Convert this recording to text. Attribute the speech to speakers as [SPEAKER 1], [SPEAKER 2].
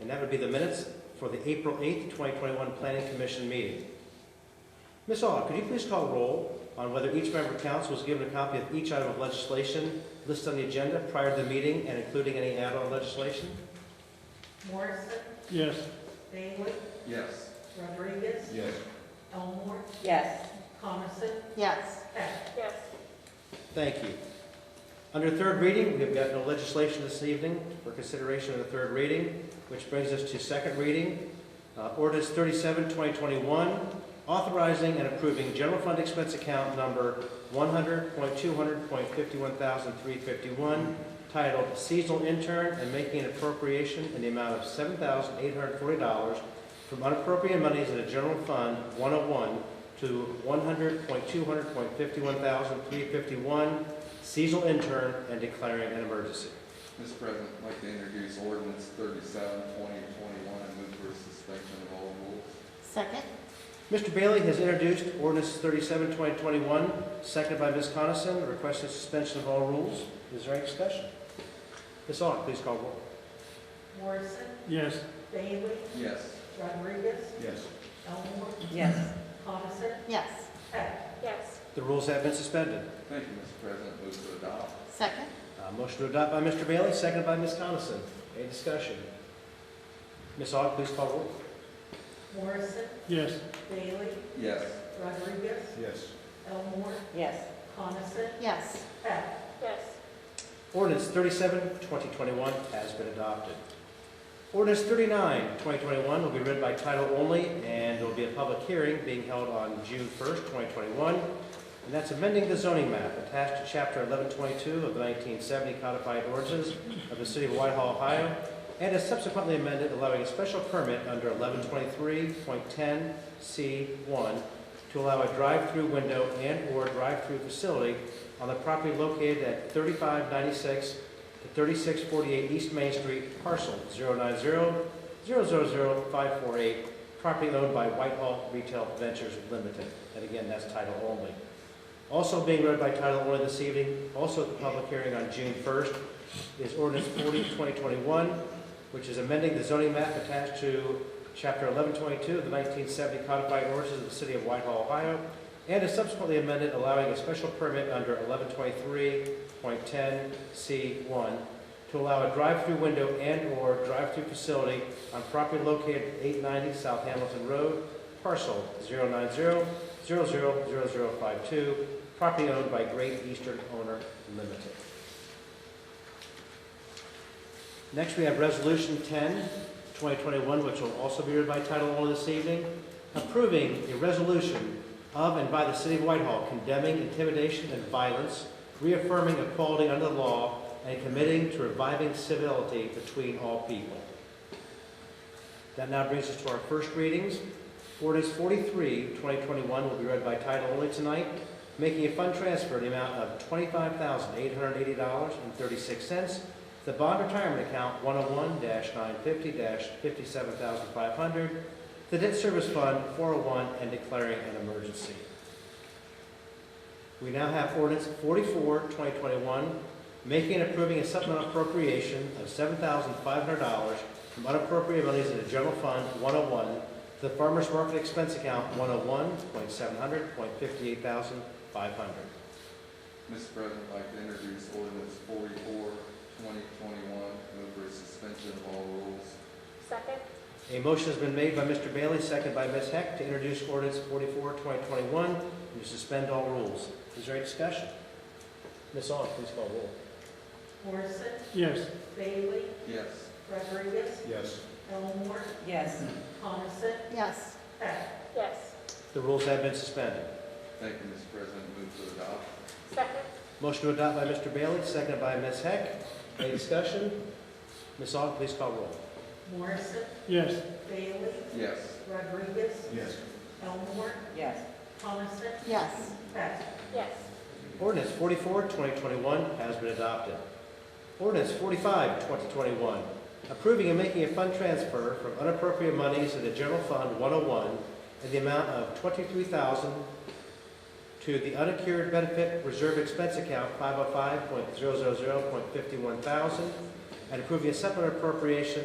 [SPEAKER 1] and that would be the minutes for the April 8th, 2021 Planning Commission meeting. Ms. Aug, could you please call roll on whether each member of council was given a copy of each item of legislation listed on the agenda prior to the meeting and including any add-on legislation?
[SPEAKER 2] Morrison,
[SPEAKER 3] Yes.
[SPEAKER 2] Bailey,
[SPEAKER 4] Yes.
[SPEAKER 2] Rodriguez,
[SPEAKER 4] Yes.
[SPEAKER 2] Elmore,
[SPEAKER 5] Yes.
[SPEAKER 2] Coniston,
[SPEAKER 5] Yes.
[SPEAKER 2] Heck.
[SPEAKER 6] yes,
[SPEAKER 1] Thank you. Under third reading, we have got no legislation this evening for consideration of the third reading, which brings us to second reading. Uh, Ordinance 37, 2021, authorizing and approving general fund expense account number 100.200.51,351 titled Seasonal Intern and making an appropriation in the amount of $7,840 from unappropriated monies in the general fund 101 to 100.200.51,351 seasonal intern and declaring an emergency.
[SPEAKER 4] Mr. President, I'd like to introduce ordinance thirty-seven, twenty twenty-one, and move for suspension of all rules.
[SPEAKER 5] Second?
[SPEAKER 1] Mr. Bailey has introduced ordinance 37, 2021, seconded by Ms. Coniston, requesting suspension of all rules. Is there any discussion? Ms. Aug, please call roll.
[SPEAKER 2] Morrison,
[SPEAKER 3] Yes.
[SPEAKER 2] Bailey,
[SPEAKER 4] Yes.
[SPEAKER 2] Rodriguez,
[SPEAKER 4] Yes.
[SPEAKER 2] Elmore,
[SPEAKER 5] Yes.
[SPEAKER 2] Coniston,
[SPEAKER 5] Yes.
[SPEAKER 2] Heck.
[SPEAKER 6] yes,
[SPEAKER 1] The rules have been suspended.
[SPEAKER 4] Thank you, Mr. President, move to adopt.
[SPEAKER 5] Second?
[SPEAKER 1] Uh, Motion to adopt by Mr. Bailey, seconded by Ms. Coniston. Any discussion? Ms. Aug, please call roll.
[SPEAKER 2] Morrison,
[SPEAKER 3] Yes.
[SPEAKER 2] Bailey,
[SPEAKER 4] Yes.
[SPEAKER 2] Rodriguez,
[SPEAKER 4] Yes.
[SPEAKER 2] Elmore,
[SPEAKER 5] Yes.
[SPEAKER 2] Coniston,
[SPEAKER 5] Yes.
[SPEAKER 2] Heck.
[SPEAKER 6] yes,
[SPEAKER 1] Ordinance 37, 2021 has been adopted. Ordinance 39, 2021 will be read by title only, and there will be a public hearing being held on June 1st, 2021, and that's amending the zoning map attached to Chapter 1122 of the 1970 codified ordinances of the City of Whitehall, Ohio, and is subsequently amended allowing a special permit under 1123.10C1 to allow a drive-through window and/or drive-through facility on the property located at 3596 to 3648 East Main Street, parcel 090-000548, property owned by Whitehall Retail Ventures Limited. And again, that's title only. Also being read by title only this evening, also at the public hearing on June 1st, is ordinance 40, 2021, which is amending the zoning map attached to Chapter 1122 of the 1970 codified ordinances of the City of Whitehall, Ohio, and is subsequently amended allowing a special permit under 1123.10C1 to allow a drive-through window and/or drive-through facility on property located at 890 South Hamilton Road, parcel 090-000052, property owned by Great Eastern Owner Limited. Next, we have Resolution 10, 2021, which will also be read by title only this evening, approving a resolution of and by the City of Whitehall condemning intimidation and violence, reaffirming equality under the law, and committing to reviving civility between all people. That now brings us to our first readings. Ordinance 43, 2021 will be read by title only tonight, making a fund transfer in the amount of $25,880.36 the bond retirement account 101-950-57500, the debt service fund 401, and declaring an emergency. We now have ordinance 44, 2021, making and approving a supplemental appropriation of $7,500 from unappropriated monies in the general fund 101 to the farmer's market expense account 101.700.58,500.
[SPEAKER 4] Mr. President, I'd like to introduce ordinance forty-four, twenty twenty-one, move for suspension of all rules.
[SPEAKER 6] second,
[SPEAKER 1] A motion has been made by Mr. Bailey, second by Ms. Heck, to introduce ordinance 44, 2021, and to suspend all rules. Is there any discussion? Ms. Aug, please call roll.
[SPEAKER 2] Morrison,
[SPEAKER 3] Yes.
[SPEAKER 2] Bailey,
[SPEAKER 4] Yes.
[SPEAKER 2] Rodriguez,
[SPEAKER 4] Yes.
[SPEAKER 2] Elmore,
[SPEAKER 5] Yes.
[SPEAKER 2] Coniston,
[SPEAKER 5] Yes.
[SPEAKER 2] Heck.
[SPEAKER 6] yes,
[SPEAKER 1] The rules have been suspended.
[SPEAKER 4] Thank you, Mr. President, move to adopt.
[SPEAKER 6] second,
[SPEAKER 1] Motion to adopt by Mr. Bailey, second by Ms. Heck. Any discussion? Ms. Aug, please call roll.
[SPEAKER 2] Morrison,
[SPEAKER 3] Yes.
[SPEAKER 2] Bailey,
[SPEAKER 4] Yes.
[SPEAKER 2] Rodriguez,
[SPEAKER 4] Yes.
[SPEAKER 2] Elmore,
[SPEAKER 5] Yes.
[SPEAKER 2] Coniston,
[SPEAKER 5] Yes.
[SPEAKER 2] Heck.
[SPEAKER 6] yes,
[SPEAKER 1] Ordinance 44, 2021 has been adopted. Ordinance 45, 2021, approving and making a fund transfer from unappropriate monies to the General Fund 101 in the amount of 23000 to the Unaccrued Benefit Reserve Expense Account 505.000.51,000 and approving a supplemental appropriation